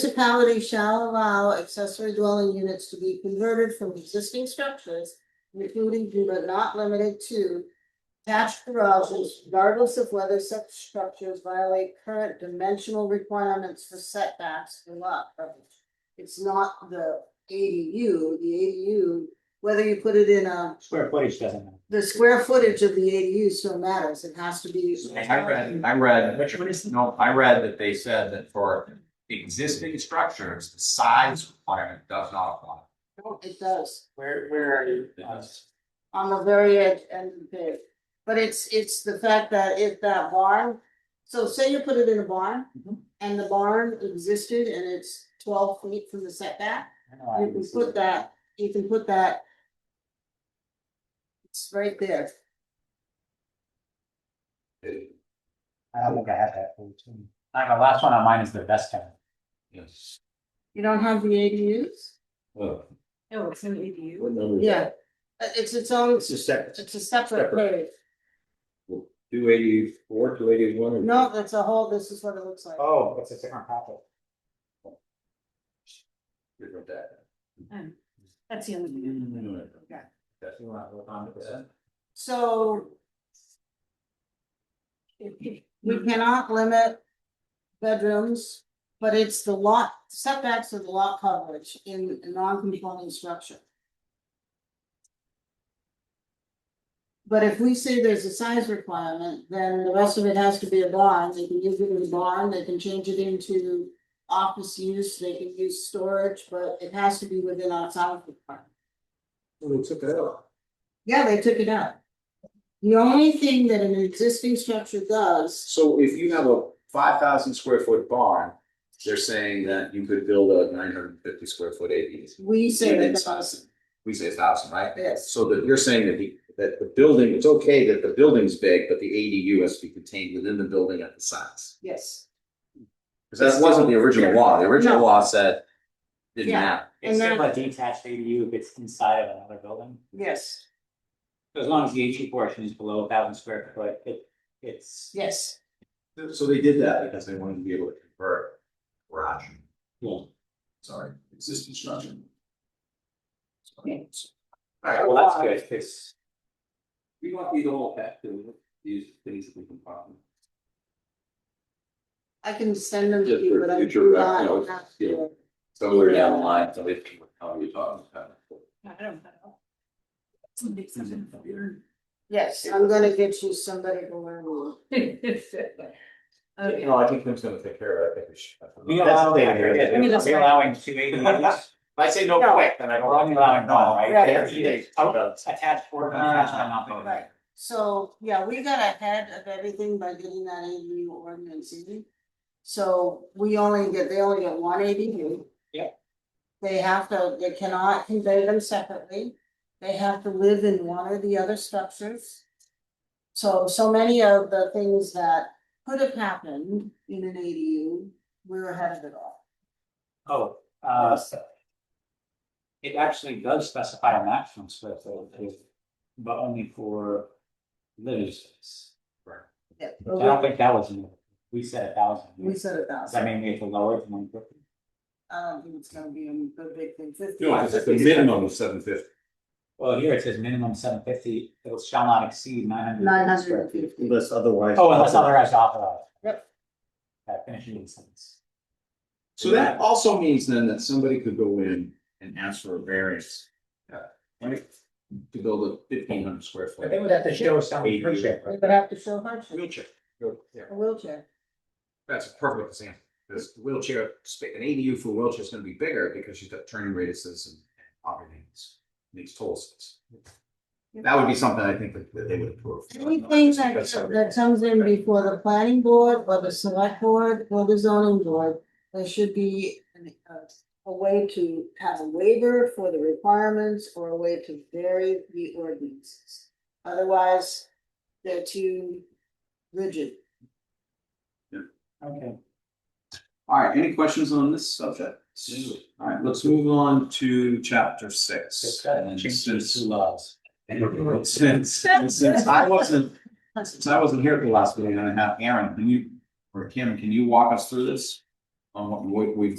Municipality shall allow accessory dwelling units to be converted from existing structures, including but not limited to attached garages, regardless of whether such structures violate current dimensional requirements for setbacks or lot coverage. It's not the ADU, the ADU, whether you put it in a, Square footage doesn't matter. the square footage of the ADU still matters, it has to be. I read, I read, no, I read that they said that for existing structures, the size requirement does not apply. It does. Where, where are you? Uh, on the very edge end of the page. But it's, it's the fact that if that barn, so say you put it in a barn. Mhm. And the barn existed and it's twelve feet from the setback, I know I you can was- put that, you can put that. It's right there, I don't think I have that. page. Uh, the last one on mine is the best kind. Yes. you don't have the ADUs? Oh, No, it's an ADU. what number? Yeah, Uh, it's its own, it's a second. a separate Separate. page, Two eighty-four, two eighty-one. no, that's a whole, this is what it looks like. Oh, it's a different packet. Um, That's the only one. That's you want to look on to that. So. We cannot limit bedrooms, but it's the lot setbacks of the lot coverage in a non-conforming structure. But if we say there's a size requirement, then the rest of it has to be a barn, they can use it as a barn, they can change it into. Office use, they can use storage, but it has to be within our size requirement. Well, they took it out. Yeah, they took it out. The only thing that an existing structure does, So if you have a five thousand square foot barn, they're saying that you could build a nine hundred and fifty square foot ADU. we say Within that size. does, We say a thousand, right? yes, So that you're saying that the, that the building, it's okay that the building's big, but the ADU has to be contained within the building at the size. yes. Because that wasn't the original law, the original No. law said, didn't Yeah. matter. It's And still a detached ADU if it's inside of another building. Yes. So As long as the ADU portion is below a thousand square foot, it, it's. Yes, So they did that because they wanted to be able to convert garage, Yeah. sorry, existing structure. All right, well, that's good, 'cause- We want these all back to these things that we can find. I can send them to Just you, for but I'm future not. reference, not yeah. sure. Somewhere down the line, somebody, how are you talking about? I don't know. Somebody sent it from here. Yes, I'm gonna get you somebody to learn more. Okay, I think Tim's gonna take care of it, I think we should. We allow, I forget, I mean, that's we fine. allowing two ADUs, I say no No. quick, then I don't. we're only allowing Right. one, right? Oh. Ah. They're either Attached or unattached, I'm not voting. Right, so, yeah, we got ahead of everything by getting that ADU ordinance in. So we only get, they only get one ADU. Yeah. They have to, they cannot convey them separately, they have to live in one or the other structures. So, so many of the things that could have happened in an ADU, we're ahead of it all. Oh, uh. It actually does specify a maximum square footage, but only for living space. I don't think that was, in there. we said a thousand. We said a Does that thousand, mean we have to lower it to one fifty? I don't think it's gonna be a good big thing, fifty. No, it's the minimum of seven fifty. Well, here it says minimum seven fifty, it shall not exceed nine hundred. Nine hundred and fifty. Unless otherwise. Oh, unless otherwise authorized. Yep. That finishing sentence. So that also means then that somebody could go in and ask for a variance. uh, Right? To build a fifteen hundred square foot. would have to show some ADU. We would have to show hardship, Wheelchair. Yeah, a wheelchair. that's a perfect example. This wheelchair, spa- an ADU for a wheelchair is gonna be bigger because she's got turning radiuses and everything. Makes total sense. That would be something I think that that they would approve. Anything that, that comes in before the planning board or the select board or the zoning board, there should be an, uh, a way to have a waiver for the requirements or a way to vary the ordinances. Otherwise, they're too rigid. Okay. All right, any questions on this subject? All right, let's move on to chapter six. And Change these since- two laws. Since, since I wasn't, since I wasn't here at the last meeting, and I have Aaron, can you, or Kim, can you walk us through this? On what we- we've